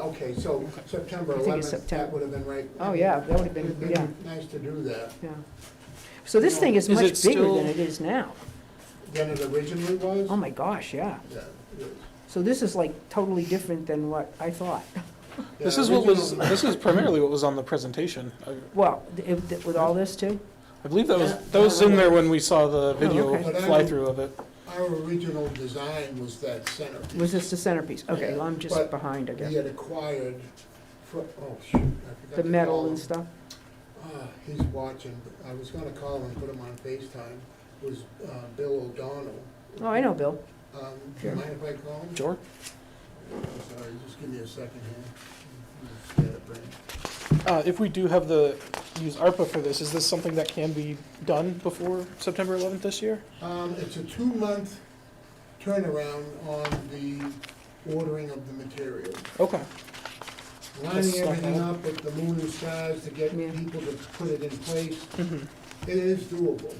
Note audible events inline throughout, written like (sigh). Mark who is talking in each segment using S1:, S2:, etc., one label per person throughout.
S1: okay, so September
S2: I think it's
S1: 11th, that
S2: September.
S1: would have been right.
S2: Oh, yeah, that would have been-
S1: It'd
S2: yeah.
S1: Nice to do that,
S2: yeah. So this thing is
S3: Is
S2: much
S3: it
S2: bigger
S3: still-
S2: than it is now.
S1: than it originally was.
S2: Oh, my gosh, yeah.
S1: Yeah, it is.
S2: So this is like totally different than what I thought.
S3: This
S1: Yeah,
S3: is what was,
S1: originally-
S3: this is primarily what was on the presentation. I
S2: Well, it- with all this too?
S3: I believe that was,
S1: Yeah.
S3: that was in there when we saw
S2: Oh,
S3: the video
S2: okay.
S1: But I-
S3: fly-through of it.
S1: Our original design was that center.
S2: Was this the centerpiece? Okay, well, I'm just
S1: But
S2: behind, I
S1: He
S2: guess.
S1: had acquired, fr- oh, shoot, I forgot
S2: The
S1: to
S2: metal
S1: call him.
S2: and stuff?
S1: Ah, He's watching, but I was gonna call him, put him on FaceTime, was uh, Bill O'Donnell.
S2: Oh, I know, Bill.
S1: Um, Do you mind if I call him?
S3: Sure.
S1: I'm Sorry, just give me a second here. Get it, Brent.
S3: Uh, if we do have the, use ARPA for this, is this something that can be done before September 11th this year?
S1: Um, It's a two-month turnaround on the ordering of the material.
S3: Okay.
S1: Lining
S3: stuff
S1: everything
S3: out.
S1: up with the moon and stars to get
S2: Yeah.
S1: people to put it in place.
S2: Mm-hmm.
S3: Mhm.
S1: It is doable.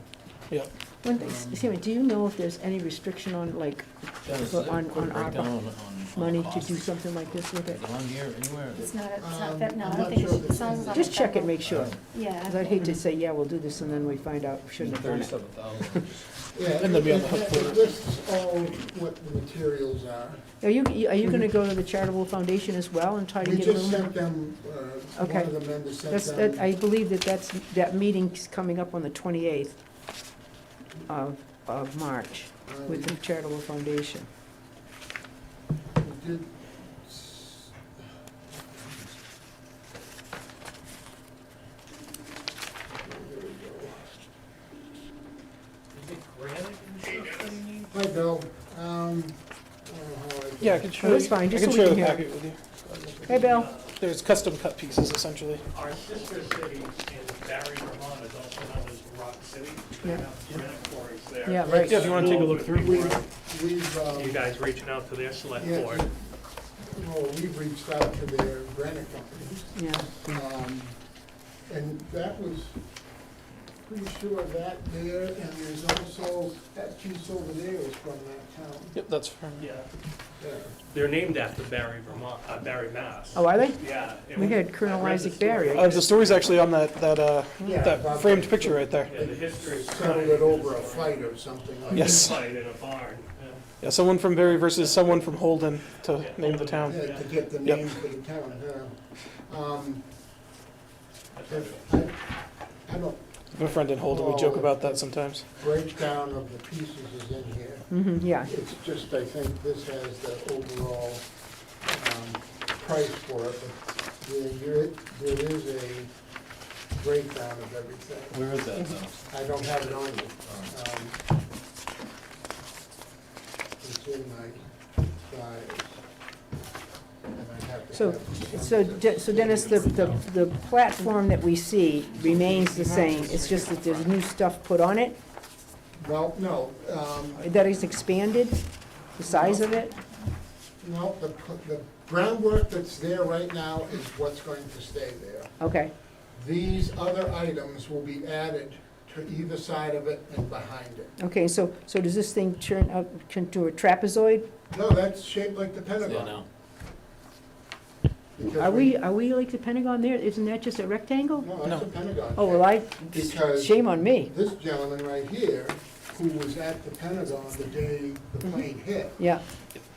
S2: One thing, Sammy, do you know if there's any restriction on, like,
S4: Does
S2: But
S4: a
S2: on-
S4: quick
S2: on ARPA
S4: breakdown on- on- on the
S2: money to
S4: cost.
S2: do something like this with it?
S4: Is it on here anywhere?
S5: It's not, it's
S1: Um,
S5: not, that- no,
S1: I'm
S5: I
S1: not
S5: don't think
S1: sure
S5: it's,
S1: if
S5: it sounds
S1: it's-
S5: like.
S2: Just check it, make sure.
S5: Yeah.
S2: Because I'd hate to say, yeah, we'll do this, and then we find out we shouldn't have done it.
S4: Thirty-seven thousand.
S1: Yeah,
S3: And they'll be on the hook
S1: it-
S3: for
S1: it
S3: it.
S1: lists all what the materials are.
S2: Are you, are you gonna go to the charitable foundation as well and try to
S1: We
S2: get a
S1: just
S2: room?
S1: sent them, uh, one
S2: Okay.
S1: of the members sent
S2: That's, that, I
S1: them.
S2: believe that that's, that meeting's coming up on the twenty-eighth of, of March
S1: uh, we
S2: with the charitable foundation.
S1: we did s- There we go. Hi, Bill. Um, I don't know how I.
S3: Yeah, I can show
S2: That's
S3: you-
S2: fine,
S3: I
S2: just
S3: can
S2: so we
S3: share
S2: can
S3: the
S2: hear.
S3: packet with you.
S2: Hey, Bill,
S3: There's custom cut pieces essentially.
S6: Our sister city in Barry, Vermont is also known as Rock City. They
S2: Yeah.
S6: have granite quarries there.
S2: yeah, right.
S3: Yeah, if you want to take a look through.
S6: We-
S1: We've, um,
S6: You guys reaching out to their select
S1: yeah,
S6: board.
S1: well, we've reached out to their granite companies.
S2: Yeah,
S1: Um, And that was, pretty sure that there, and there's also, that piece over there was from that town.
S3: Yep, that's fine.
S6: Yeah,
S1: there.
S6: they're named after Barry, Vermont, uh, Barry, Mass.
S2: oh, are they?
S6: Yeah. and
S2: We had
S6: I
S2: Colonel
S6: read the
S2: Isaac
S6: story.
S2: Barry.
S3: Uh, the story's actually on that, that, uh,
S1: Yeah,
S3: that
S1: about-
S3: framed picture right there.
S6: Yeah, the history.
S1: Settled it over a fight or something like that.
S3: Yes.
S6: Fight in a barn. yeah.
S3: Yeah, someone from Barry versus someone from Holden to
S6: Yeah.
S3: name the town.
S1: Yeah, to get the
S3: Yep.
S1: name for the town, yeah. Um,
S6: That's
S1: I
S6: what it
S1: I don't,
S3: My friend in Holden, we joke about that sometimes.
S1: breakdown of the pieces is in here.
S2: hmm yeah,
S1: It's just, I think this has the overall um, price for it, but there- you're- there is a breakdown of everything.
S4: Where is that
S2: (laughs)
S4: though?
S1: I don't have it on me.
S4: Oh,
S1: Um, It's in my files. And I have to
S2: so,
S1: have
S2: so,
S1: some-
S2: De- so Dennis, the, the, the platform that we see remains the same, it's just that there's new stuff put on it,
S1: Well, no, um,
S2: that is expanded, the size of it?
S1: no, the the groundwork that's there right now is what's going to stay there.
S2: Okay,
S1: These other items will be added to either side of it and behind it.
S2: okay, so, so does this thing turn out into a trapezoid?
S1: No, that's shaped like the
S4: It's there
S1: Pentagon.
S4: now.
S1: because
S2: Are we, are we like the Pentagon there? Isn't that just a rectangle?
S1: No, that's
S3: No.
S1: a Pentagon.
S2: Oh, well, I,
S1: Because-
S2: shame on me.
S1: This gentleman right here, who was at the Pentagon the day the plane hit,
S2: Mm-hmm. Yeah,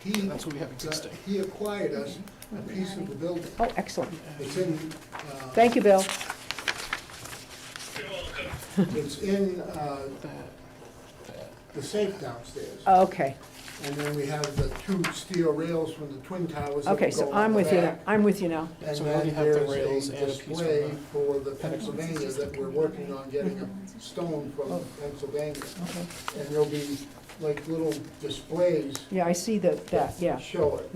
S1: he,
S3: That's what we have existing.
S1: he acquired us a piece of the building.
S2: oh, excellent.
S1: It's in, uh,
S2: Thank you, Bill.
S1: it's in, uh, the safe downstairs.
S2: Uh, Oh, Okay,
S1: And then we have the two steel rails from the twin towers. that
S2: okay,
S1: go
S2: so
S1: on
S2: I'm
S1: the
S2: with you, now.
S1: back.
S2: I'm with you now.
S1: And
S3: So we already
S1: then
S3: have the
S1: there's
S3: rails and
S1: a
S3: a piece from
S1: display
S3: the
S1: for the Pennsylvania that we're working on getting a stone from
S3: Oh.
S1: Pennsylvania.
S2: Okay.
S1: And there'll be like little displays
S2: Yeah, I see that, that, yeah.
S1: that show it.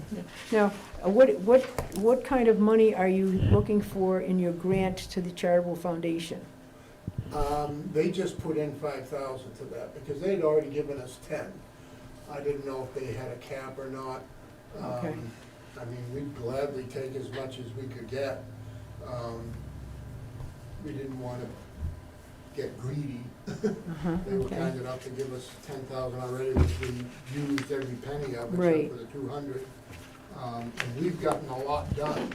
S2: Now, uh, what, what, what kind of money are you looking for in your grant to the charitable foundation?
S1: Um, They just put in five thousand to that because they'd already given us ten. I didn't know if they had a cap or not. Um,
S2: Okay.
S1: I mean, we'd gladly take as much as we could get. Um, We didn't want to get greedy.
S2: Uh-huh,
S1: They were
S2: okay.
S1: kind enough to give us ten thousand already, which we used every penny of
S2: Right.
S1: except for the two hundred. Um, And we've gotten a lot done